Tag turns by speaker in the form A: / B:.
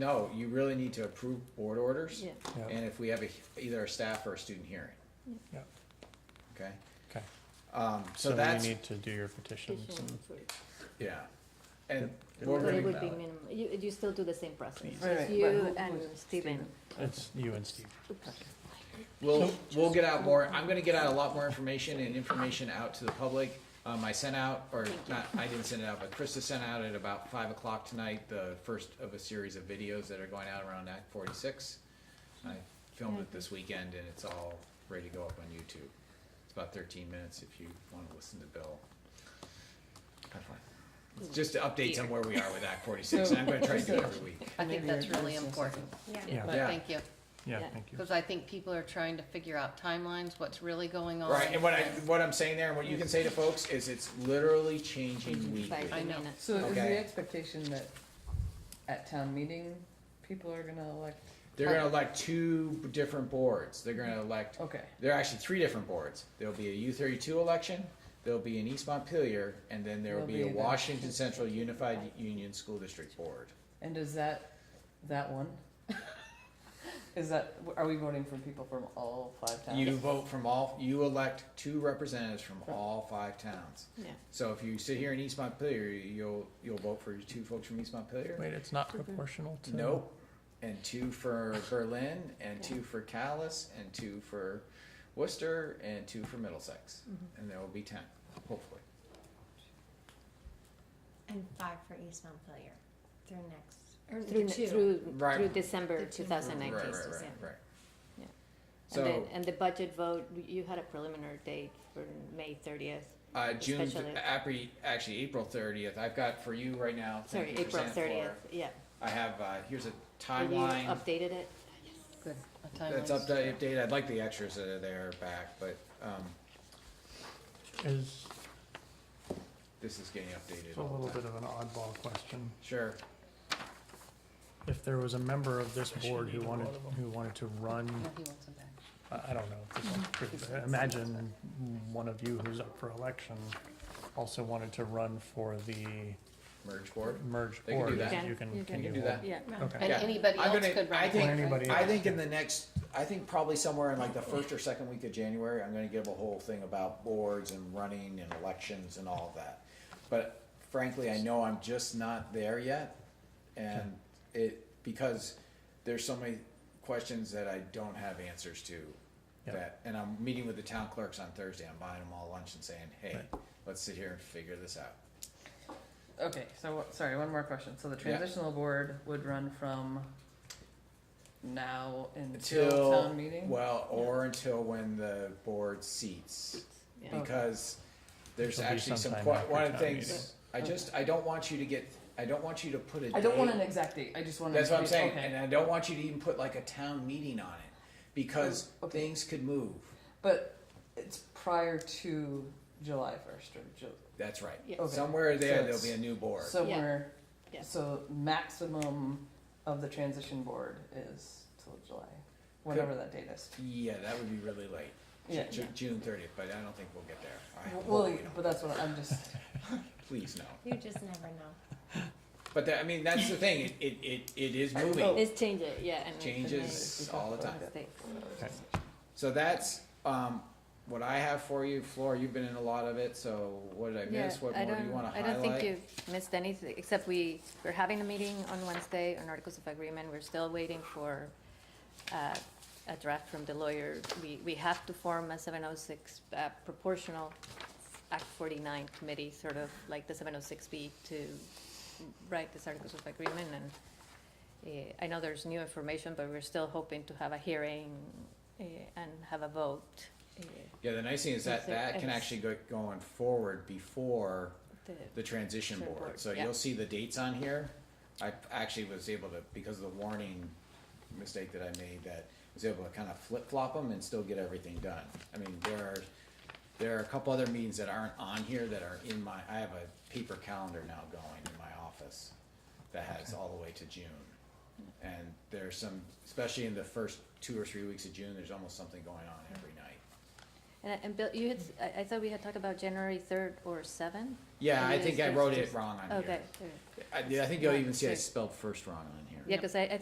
A: No, you really need to approve board orders.
B: Yeah.
C: Yeah.
A: And if we have a, either a staff or a student hearing,
C: Yeah,
A: okay?
C: okay.
A: Um, so
C: So then
A: that's,
C: you need to do your petitions
B: Petition
C: and,
B: for-
A: yeah. And.
B: But
A: board
B: it
A: meeting
B: would be
A: ballot.
B: minimal, you, you still do the same process,
D: Right, right,
B: It's
D: but
B: you
D: who-
B: and
D: who's
B: Steven.
C: it's you and Steve.
A: We'll, we'll get out more, I'm gonna get out a lot more information and information out to the public. Um, I sent out, or not, I didn't send it out, but Krista sent out at about five o'clock tonight, the first of a series of videos that are going out around Act forty-six. I filmed it this weekend and it's all ready to go up on YouTube. It's about thirteen minutes if you wanna listen to Bill. Have fun. It's Just updates on where we are with Act forty-six, and I'm gonna try to do it every week.
E: I think
D: Maybe
E: that's
D: it is
E: really
D: just-
E: important,
C: Yeah,
E: but
A: Yeah.
E: thank you,
C: yeah,
B: Yeah.
C: thank you.
E: because I think people are trying to figure out timelines, what's really going on.
A: Right, and what I, what I'm saying there, and what you can say to folks is it's literally changing
B: By
A: weekly.
E: I
B: the
E: know.
B: minute.
D: So is
A: Okay.
D: the expectation that at town meeting, people are gonna elect,
A: They're gonna elect two different boards. They're gonna elect,
D: okay,
A: there are actually three different boards. There'll be a U thirty-two election, there'll be an East Montpelier, and then there'll be a
D: There'll be the-
A: Washington Central Unified Union School District Board.
D: and is that, that one? Is that, are we voting for people from all five towns?
A: You vote from all, you elect two representatives from all five towns.
B: Yeah.
A: So if you sit here in East Montpelier, you'll, you'll vote for two folks from East Montpelier?
C: Wait, it's not proportional to?
A: Nope. And two for Berlin, and two for Calais, and two for Worcester, and two for Middlesex. And there will be ten, hopefully.
F: And five for East Montpelier through next, or
B: Through,
F: through two.
B: through,
A: Right.
B: through December
F: The two.
B: two thousand
A: Right,
B: nineteen.
A: right, right, right.
B: Yeah. And then,
A: So,
B: and the budget vote, you had a preliminary date for May thirtieth,
A: uh, June,
B: special ed.
A: actually, actually, April thirtieth, I've got for you right now. thank
B: sorry,
A: you for
B: April
A: standing for it.
B: thirtieth, yeah.
A: I have, uh, here's a
B: And you
A: timeline
B: Updated it,
E: Good, a
A: that's
E: timeline.
A: upda- updated. I'd like the extras that are there back, but, um,
C: Is,
A: this is getting updated
C: it's a
A: all
C: little
A: the time.
C: bit of an oddball question.
A: Sure.
C: If there was a member of this board who wanted, who wanted to run,
E: No, he wants them back.
C: I I don't know, if this
A: Mm-hmm.
C: is true, but imagine one of you who's up for election also wanted to run for the
A: Merge board.
C: merged
A: They can do
C: board.
A: that.
C: You
B: You
C: can,
A: can
C: can you?
A: do that.
B: yeah.
C: Okay.
E: And
A: Yeah.
E: anybody
A: I'm
E: else
A: gonna-
E: could
A: I
E: run
A: think-
E: for it, right?
C: anybody
A: I
C: else,
A: think in
C: yeah.
A: the next, I think probably somewhere in like the first or second week of January, I'm gonna give a whole thing about boards and running and elections and all of that. But frankly, I know I'm just not there yet, and it, because there's so many questions that I don't have answers to.
C: Yeah.
A: That, and I'm meeting with the town clerks on Thursday, I'm buying them all lunch and saying, hey, let's sit here and figure this out.
D: Okay, so, sorry, one more question, so the
A: Yeah.
D: transitional board would run from now until
A: Until,
D: town meeting?
A: well, or until when the board seats.
B: Yeah.
A: because there's
C: It'll be
A: actually some,
C: sometime
A: que-
C: after
A: one of the
C: town
A: things, I just, I don't want you to get, I don't want you to put a
D: I don't want
A: date.
D: an exact date, I just want.
A: That's what
D: to-
A: I'm saying,
D: okay.
A: and I don't want you to even put like a town meeting on it, because
D: Oh, okay.
A: things could move,
D: But it's prior to July first or Ju-
A: that's right.
B: Yeah. Okay.
A: Somewhere there,
D: So
A: there'll
D: it's-
A: be a new board,
D: somewhere.
B: Yeah.
D: So maximum of the transition board is till July, whatever that date is.
A: yeah, that would be really late,
D: Yeah.
A: Ju- June thirtieth, but I don't think we'll get there, I hope
D: Well,
A: we don't.
D: but that's what I'm just,
A: please no.
F: You just never know.
A: But that, I mean, that's the thing, it, it, it, it is
D: Oh.
A: moving,
B: It's changing, yeah. and-
A: changes all the time.
B: and mistakes.
C: Okay.
A: So that's um, what I have for you, Floor. You've been in a lot of it, so what did I miss? what more do you want to highlight?
B: I don't think you've missed anything, except we, we're having a meeting on Wednesday on Articles of Agreement. We're still waiting for uh, a draft from the lawyer. We, we have to form a 706 uh, proportional Act 49 committee, sort of like the 706B, to write this Articles of Agreement. And eh, I know there's new information, but we're still hoping to have a hearing eh, and have a vote. eh,
A: Yeah, the nice thing is that
B: Is it-
A: that can
B: it's-
A: actually go going forward before
B: the-
A: the transition
B: Transition
A: board.
B: board,
A: So
B: yeah.
A: you'll see the dates on here. I actually was able to, because of the warning mistake that I made, that I was able to kind of flip flop them and still get everything done. I mean, there are, there are a couple other meetings that aren't on here that are in my, I have a paper calendar now going in my office that has all the way to June. And there's some, especially in the first two or three weeks of June, there's almost something going on every night.
B: And, and Bill, you had, I, I thought we had talked about January third or seventh?
A: Yeah, I
B: Maybe
A: think
B: it's
A: I wrote
B: just-
A: it wrong on here.
B: Okay,
A: I, I think you'll even see I spelled first wrong on here.
B: Yeah, because I, I